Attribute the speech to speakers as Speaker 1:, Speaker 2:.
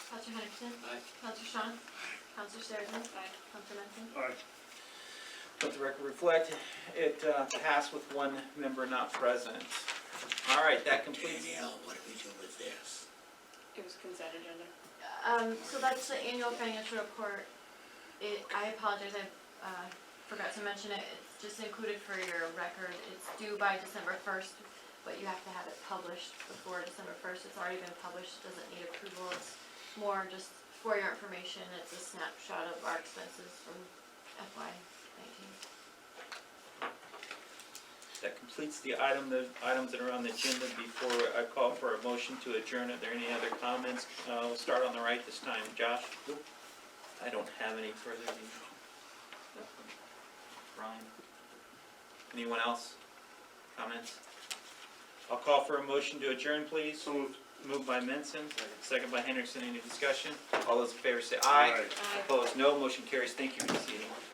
Speaker 1: Counselor Henderson.
Speaker 2: Aye.
Speaker 1: Counselor Sean. Counselor Sarahman. Aye. Counselor Menson.
Speaker 3: Aye.
Speaker 4: Let the record reflect, it uh, passed with one member not present. All right, that completes.
Speaker 2: Danielle, what do we do with this?
Speaker 5: It was consent agenda.
Speaker 1: Um, so that's the annual financial report. It, I apologize, I, uh, forgot to mention it, it's just included for your record, it's due by December first, but you have to have it published before December first, it's already been published, doesn't need approval, it's more just for your information, it's a snapshot of our expenses from FY nineteen.
Speaker 4: That completes the item, the items that are on the agenda before I call for a motion to adjourn. Are there any other comments? Uh, We'll start on the right this time. Josh? I don't have any further. than you. Ryan? Anyone else? Comments? I'll call for a motion to adjourn, please.
Speaker 3: So moved.
Speaker 4: Moved by Menson, second by Henderson. Any discussion? All those in favor say aye.
Speaker 3: Aye.
Speaker 4: Opposed, no. Motion carries. Thank you for this evening.